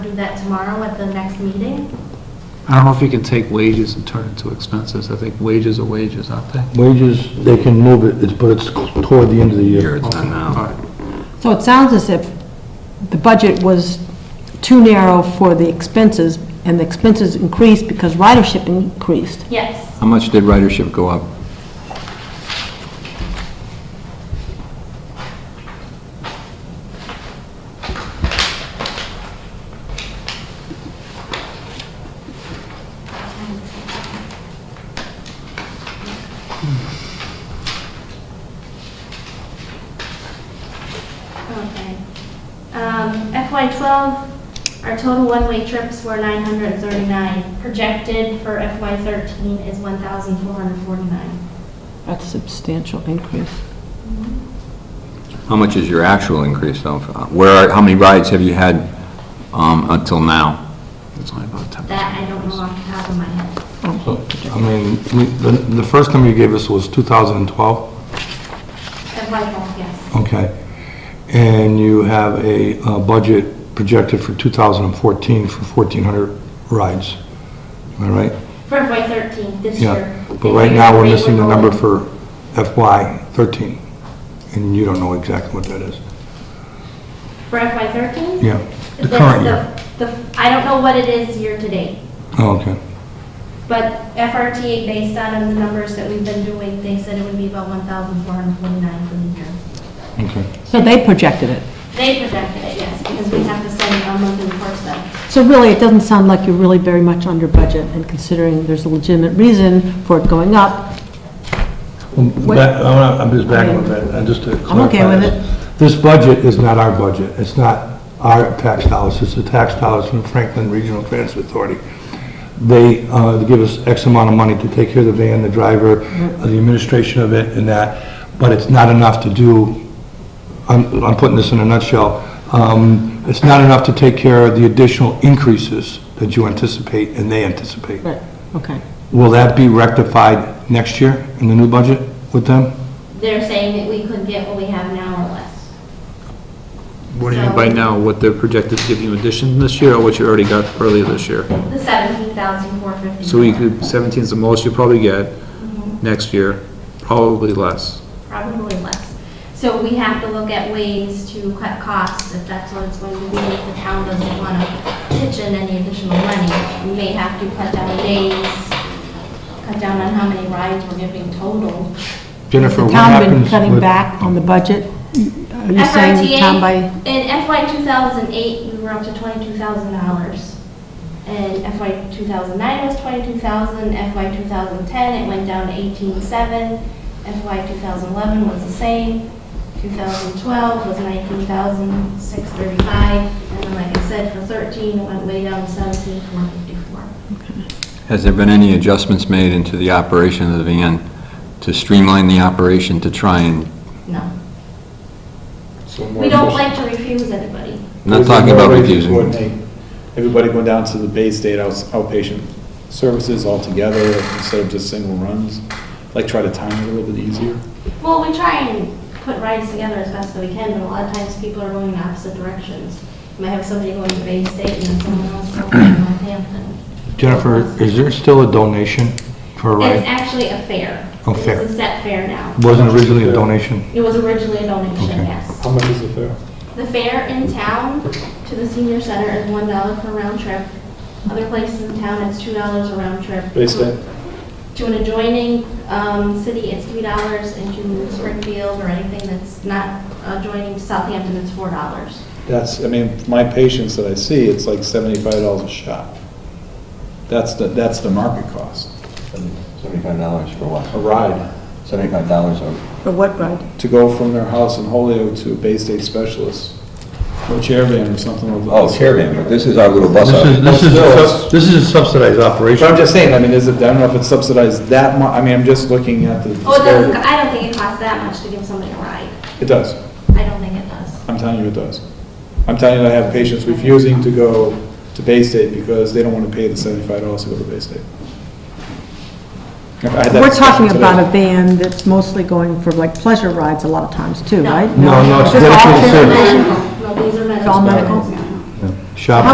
Do that tomorrow at the next meeting? I don't know if you can take wages and turn it into expenses. I think wages are wages, aren't they? Wages, they can move it, it's- but it's toward the end of the year. it's not All now. right. So it sounds as if the budget was too narrow for the expenses, and the expenses increased because ridership increased. Yes. How much did ridership go up? Okay. Um, FY twelve, our total one-way trips were nine hundred and thirty-nine. Projected for FY thirteen is one thousand four hundred and forty-nine. That's a substantial increase. How much is your actual increase though? Where, are- how many rides have you had um, until now? It's only about 10%. That I don't know off the top of my head. So, I mean, we- the, the first number you gave us was 2012, FY twelve, yes. okay? And you have a uh, budget projected for 2014 for 1,400 rides, am I right? For FY thirteen, this year. Yeah, but right now, we're missing the number for FY '13, and you don't know exactly what that is. For FY thirteen? Yeah, the current year. I don't know what it is year-to-date. Oh, okay. But FRTA, based on the numbers that we've been doing, they said it would be about 1,449 for the year. Okay. So they projected it. They projected it, yes, because we have to send our monthly reports then. So really, it doesn't sound like you're really very much under budget, and considering there's a legitimate reason for it going up, Well, What- back- I'm not- I'm just back on that, and just to clarify. okay with this. it. This budget is not our budget, it's not our tax dollars, it's the tax dollars from Franklin Regional Transit Authority. They uh, give us X amount of money to take care of the van, the driver, Mm-hmm. uh, the administration of it and that, but it's not enough to do, I'm I'm putting this in a nutshell, um, it's not enough to take care of the additional increases that you anticipate and they anticipate. but, okay. Will that be rectified next year in the new budget with them? They're saying that we could get what we have now or less. What do you mean by now, what they're projected to give you in addition this year, or what you already got earlier this year? The 17,450. So you could, 17 is the most you probably get Mhm, next year, probably less. Probably less. So we have to look at ways to cut costs, if that's what it's going to be. If the town doesn't want to pitch in any additional money, we may have to cut down days, cut down on how many rides we're giving total. Jennifer, The what town happens been with... cutting back on the budget? Are you saying the town by, FRTA, in FY 2008, we were up to $22,000. And FY 2009 was 22,000, FY 2010, it went down to 18,700, FY 2011 was the same, 2012 was 19,635, and then like I said, for 13, it went way down to 17,454. Has there been any adjustments made into the operation of the van to streamline the operation to try and, No. We don't like to refuse anybody. I'm not talking about There's no way to reducing? coordinate Everybody going down to the Bay State outs- outpatient services altogether instead of just single runs, like try to time it a little bit easier. Well, we try and put rides together as best that we can, but a lot of times people are going in opposite directions. You might have somebody going to Bay State and then someone else going to Northampton. Jennifer, is there still a donation for a It's ride? actually a fair. A fair. It's a set fair now. Wasn't originally a donation? It was originally a donation, Okay. yes. much is it fair? The fare in town to the senior center is one dollar per round trip. Other places in town, it's two dollars a round trip. Bay State, To an adjoining um, city, it's three dollars, and to Springfield or anything that's not adjoining Southampton, it's four dollars. that's, I mean, my patients that I see, it's like seventy-five dollars a shot. That's the, that's the market cost, Seventy-five dollars for a what? ride. Seventy-five dollars or? for what ride? To go from their house in Holyoke to a Bay State specialist, or Chairman or something like that. Oh, caravan, but this is our little bus. This is, this is, a sub- this is a subsidized But I'm operation. just saying, I mean, is it, I don't know if it's subsidized that much. I mean, I'm just looking at the. Oh, it doesn't, I don't think it costs that much to give somebody a ride. It does. I don't think it does. I'm telling you it does. I'm telling you I have patients refusing to go to Bay State because they don't want to pay the seventy-five dollars to go to Bay State. I had that We're talking discussion today. about a van that's mostly going for like pleasure rides a lot of times too, No. right? No, no, it's Just all dedicated transportation? service. No, these are medical. It's all medical? Shopping.